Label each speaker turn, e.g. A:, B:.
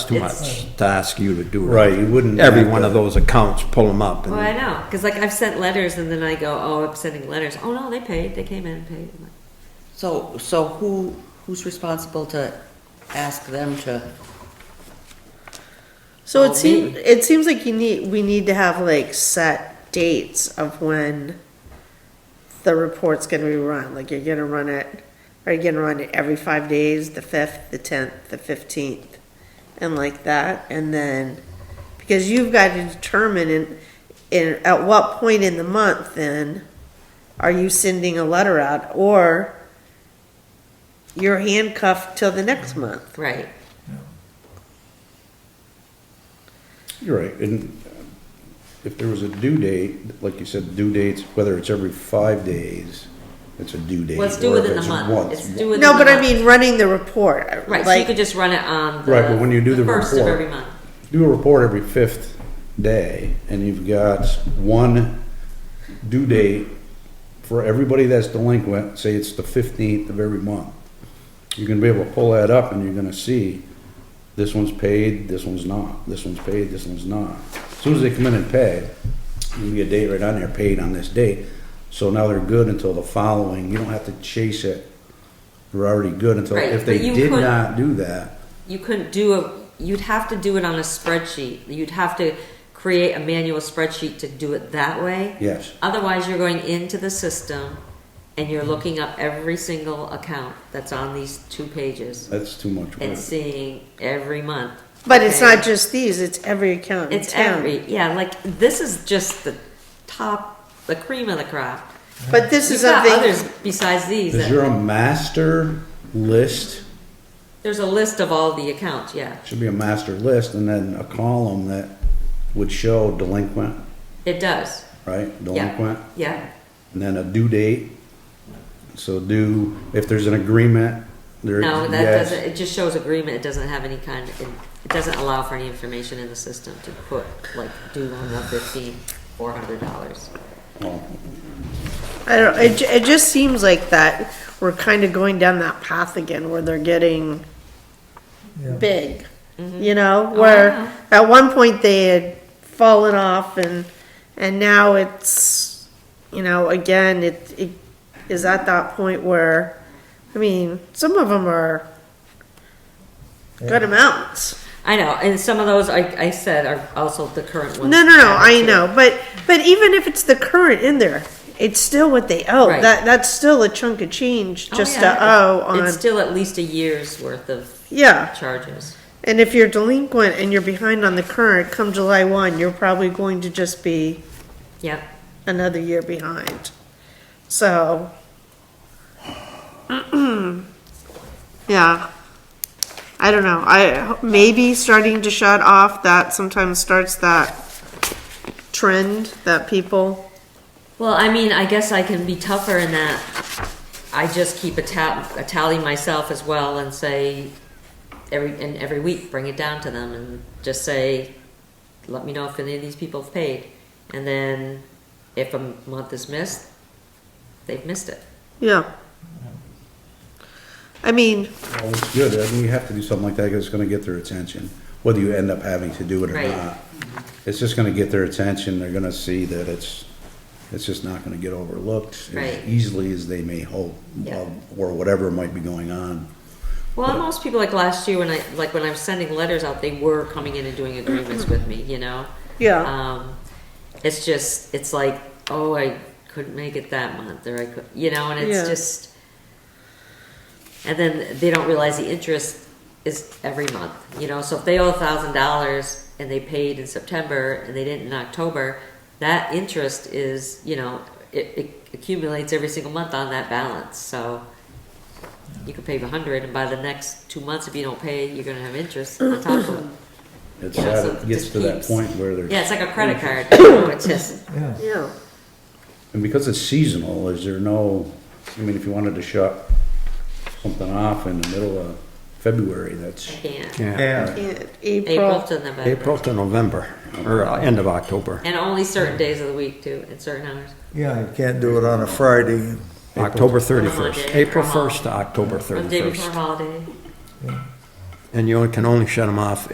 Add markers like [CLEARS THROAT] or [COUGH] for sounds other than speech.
A: too
B: It's-
A: much to ask you to do. it.
C: Right, you wouldn't
A: Every
C: have
A: one of
C: to-
A: those accounts, pull them up. and-
B: Well, I know, because like I've sent letters and then I go, oh, I'm sending letters. Oh, no, they paid, they came in and paid. I'm like,
D: So, so who, who's responsible to ask them to, Oh,
E: So it seems it seems like you need we need to have like set dates of when the report's gonna be run. Like you're gonna run it are you gonna run it every five days, the fifth, the tenth, the fifteenth, and like that, and then because you've got to determine in in at what point in the month then are you sending a letter out or you're handcuffed till the next month.
B: Right,
C: You're right, and if there was a due date, like you said, due dates, whether it's every five days, it's a due date.
B: well, it's due
C: or if
B: within the
C: it's
B: month,
C: once.
B: it's due within the
E: No,
B: month.
E: but I mean running the report.
B: Right, so you
E: like-
B: could just run it on the.
C: Right, but when you do the
B: First of
C: report-
B: every month,
C: Do a report every fifth day, and you've got one due date for everybody that's delinquent, say it's the fifteenth of every month. You're gonna be able to pull that up and you're gonna see, this one's paid, this one's not, this one's paid, this one's not. As Soon as they come in and pay, you get a date right on there, paid on this date, so now they're good until the following, you don't have to chase it. They're already good until,
B: Right,
C: if they
B: but you
C: did
B: could-
C: not do that,
B: you couldn't do a, you'd have to do it on a spreadsheet. You'd have to create a manual spreadsheet to do it that way.
C: yes,
B: Otherwise, you're going into the system and you're looking up every single account that's on these two pages
C: that's too much work.
B: and seeing every month.
E: But it's
B: okay?
E: not just these, it's every account in
B: It's
E: town.
B: every, yeah, like, this is just the top, the cream of the crop.
E: But this
B: You've
E: is
B: got others
E: something,
B: besides these.
C: Is
B: that-
C: there a master list?
B: There's a list of all the accounts, yeah.
C: Should be a master list and then a column that would show delinquent,
B: It does,
C: right?
B: Yeah.
C: Delinquent,
B: yeah.
C: and then a due date. So do, if there's an agreement, there,
B: No, that
C: yes.
B: doesn't, it just shows agreement, it doesn't have any kind, of- it doesn't allow for any information in the system to put, like, due on the fifteen, four hundred dollars.
C: Well,
E: I don't, it, ju- it just seems like that, we're kind of going down that path again where they're getting big.
B: Mm-hmm.
E: You know,
B: know.
E: where at one point they had fallen off and, and now it's, you know, again, it, it is at that point where, I mean, some of them are good amounts.
B: I know, and some of those, I, I said, are also the current ones.
E: No, no, no. I know, but but even if it's the current in there, it's still what they owe.
B: Right.
E: That that's still a chunk of change
B: Oh,
E: just
B: yeah.
E: to owe on.
B: It's still at least a year's worth of
E: yeah,
B: charges.
E: and if you're delinquent and you're behind on the current, come July one, you're probably going to just be
B: Yep.
E: another year behind. So, [CLEARS THROAT] yeah. I don't know. I maybe starting to shut off that sometimes starts that trend that people
B: Well, I mean, I guess I can be tougher in that I just keep a ta- a tally myself as well and say, every, and every week, bring it down to them and just say, let me know if any of these people have paid. And then if a month is missed, they've missed it.
E: Yeah. I mean,
C: well, Oh, it's good. I mean, you have to do something like that because it's gonna get their attention, whether you end up having to do it or
B: Right.
C: not. It's just gonna get their attention. They're gonna see that it's, it's just not gonna get overlooked
B: Right.
C: as easily as they may hope,
B: Yeah.
C: or whatever might be going on.
B: Well, and most people, like last year when I, like when I was sending letters out, they were coming in and doing agreements with me, you know?
E: Yeah.
B: Um, it's just, it's like, oh, I couldn't make it that month, or I could, you know, and it's
E: Yeah.
B: just, and then they don't realize the interest is every month, you know? So if they owe a thousand dollars and they paid in September and they didn't in October, that interest is, you know, it, it accumulates every single month on that balance, so you could pay a hundred, and by the next two months, if you don't pay, you're gonna have interest on top of it.
C: It's,
B: Yeah,
C: sad
B: so
C: it
B: it
C: gets
B: just
C: to that
B: keeps-
C: point where there's.
B: Yeah, it's like a credit card. you know, It's just,
F: Yeah.
E: yeah,
C: And because it's seasonal, is there no, I mean, if you wanted to shut something off in the middle of February, that's,
B: yeah.
A: Yeah.
F: Yeah.
E: in
B: April
E: April,
B: to November.
A: April to November, or uh, end of October.
B: And only certain days of the week too, and certain hours.
F: Yeah, you can't do it on a Friday.
A: October
B: Or
A: 31st,
B: Monday,
A: April
B: or
A: 1st to October
B: Or the day before
A: 31st.
B: holiday.
A: And you only- can only shut them off